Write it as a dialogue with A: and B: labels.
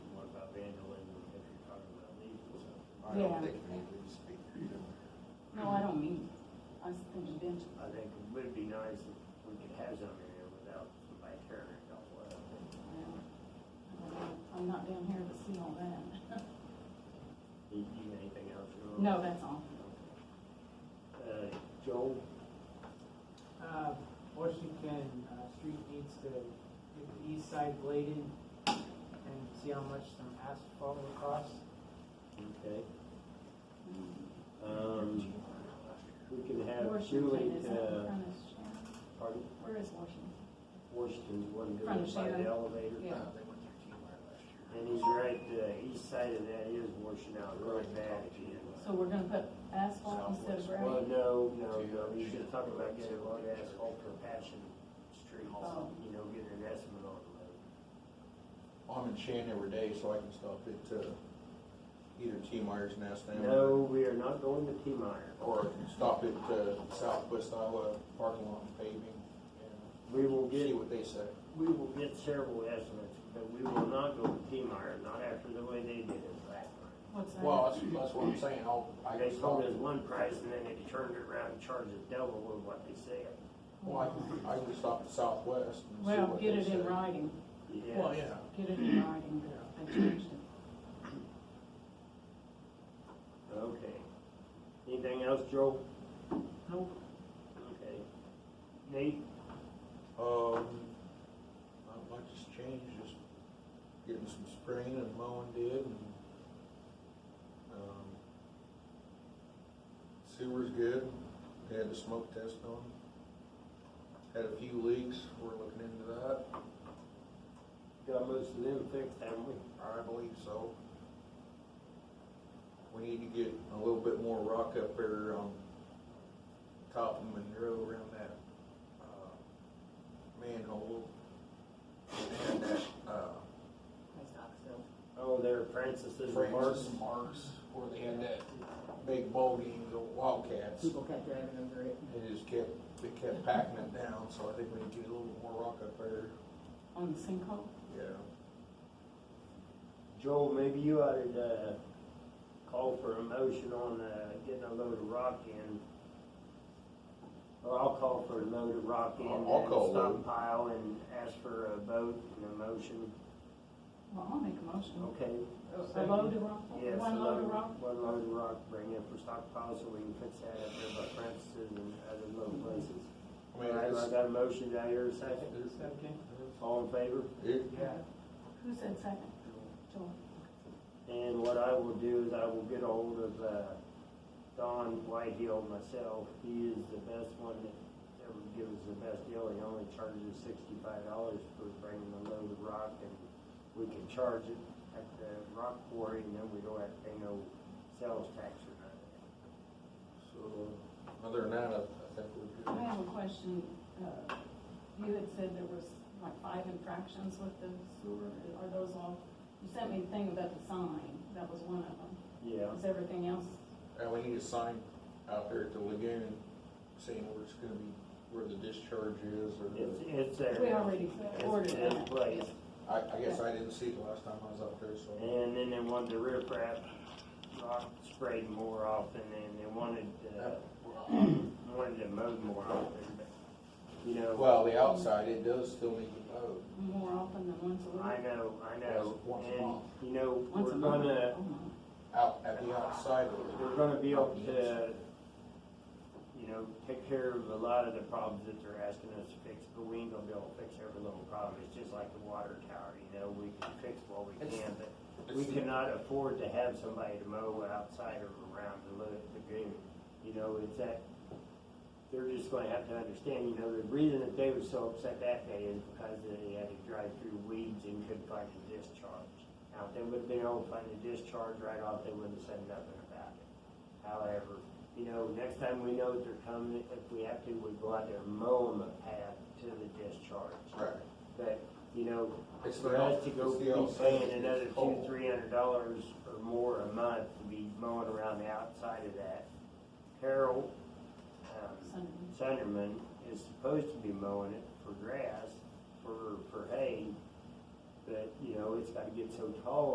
A: I don't
B: Yeah.
A: think we need to speak for you.
B: No, I don't mean, I was thinking bench.
C: I think it would be nice if we could have something there without somebody tearing it all up.
B: I'm not down here to see all that.
C: Do you need anything else? Earl?
B: No, that's all.
C: Uh, Joel,
D: Uh, Washington, uh, street needs to get the east side bladed and see how much some asphalt will cost.
C: okay. Um, we can have Julie,
B: Washington is that in
C: uh,
B: front of Sharon?
C: pardon,
B: Where is Washington?
C: Washington's one
B: Front of
C: good by the
B: Shannon.
C: elevator.
B: Yeah.
A: Uh, They went through T-Line last year.
C: And he's right, the east side of that is washing out really bad again.
B: So we're gonna put asphalt instead of
C: Well,
B: gravel?
C: no, no, no, he's just talking about getting a lot of asphalt for patching streets,
B: Oh.
C: you know, getting an estimate on the road.
E: I'm in Shan every day, so I can stop at, uh, either T Myers Nest now.
C: No, we are not going to T Meyer.
E: Or stop at, uh, Southwest Iowa parking lot and paving, and
C: We will
E: see
C: get,
E: what they say.
C: we will get several estimates, but we will not go to T Meyer, not after the way they did it last time.
B: What's that?
E: Well, that's, that's what I'm saying, I'll, I
C: They
E: can
C: told
E: stop,
C: us one price and then they turned it around and charged us double with what they said.
E: well, I can, I can stop at Southwest and see
B: Well,
E: what
B: get
E: they
B: it
E: say.
B: in writing,
C: Yeah.
E: Well, yeah,
B: get it in writing, that they changed it.
C: Okay. Anything else, Joe?
D: Nope.
C: Okay. Nate,
E: um, not much has changed, just getting some spraying and mowing did, and, um, sewer's good, They had the smoke test on. Had a few leaks, we're looking into that,
C: got most of them fixed, haven't we?
E: I believe so. We need to get a little bit more rock up there on top of Monroe around that, uh, manhole. And that, uh,
B: That's not so.
C: Oh, there, Francis is a mark.
E: Francis Marks, where they had that big bowling, the Wildcats.
F: People kept driving over it.
E: They just kept, they kept packing it down, so I think we need to get a little bit more rock up there,
B: On the sinkhole?
E: yeah.
C: Joel, maybe you ought to, uh, call for a motion on, uh, getting a load of rock in. Or I'll call for a load of rock in,
E: I'll- I'll
C: and
E: call a load.
C: stockpile, and ask for a vote and a motion,
B: Well, I'll make a
E: Oh,
B: motion.
C: okay?
B: A load of rock,
C: Yes,
B: one
C: a
B: load of rock?
C: One load of rock, bring in for stockpile, so we can fix that up there by Francis and other little places.
E: I mean,
C: All right, I
E: it's,
C: got a motion, do I hear a second?
D: Second.
C: All in favor?
E: it,
B: Who said second? Joel.
C: And what I will do is I will get ahold of, uh, Don Whitehill myself. He is the best one that ever gives us the best deal. He only charges sixty-five dollars for bringing a load of rock and we can charge it at the rock quarry and then we don't have to pay no sales tax or nothing.
E: so, other than that, I, I think we're
B: I
E: good.
B: have a question. Uh, You had said there was like five infractions with the sewer. Are those all, you sent me a thing about the sign. That was one of them.
C: Yeah.
B: Is everything else?
E: And we need a sign out there at the lagoon saying where it's gonna be, where the discharge is, or
C: It's,
E: the,
C: it's there.
B: We already
C: It's-
B: ordered
C: It's
B: that.
C: placed.
E: I, I guess I didn't see it the last time I was up there, so.
C: And then they wanted the riprap rock sprayed more often, and they wanted, uh, wanted to mow more often, but, you know,
E: Well, the outside, it uh, does still need to mow.
B: More often than once a
C: I
B: week?
C: know, I know.
E: Once a
C: And,
E: month.
C: you know,
B: Once
C: we're
B: a month?
C: gonna,
B: Oh, my.
E: out, at the outside of it.
C: we're gonna be able to, you know, take care of a lot of the problems that they're asking us to fix, but we ain't gonna be able to fix every little problem. It's just like the water tower, you know, we can fix what we
E: It's-
C: can, but we
E: it's-
C: cannot afford to have somebody to mow outside or around the lo- lagoon. You know, it's that, they're just gonna have to understand, you know, the reason that they were so upset that day is because they had to drive through weeds and couldn't find a discharge. Now, if they would've been able to find a discharge right off, they wouldn't have said nothing about it. However, you know, next time we know that they're coming, if we have to, we go out there and mow them a path to the discharge.
E: Right.
C: But, you know,
E: It's
C: for
E: the
C: us
E: out-
C: to go
E: it's the
C: be
E: outside
C: paying
E: that's
C: another two,
E: cold.
C: three hundred dollars or more a month to be mowing around the outside of that. Carol, um,
B: Sunday.
C: Sunderman is supposed to be mowing it for grass, for, for hay, but, you know, it's gotta get so tall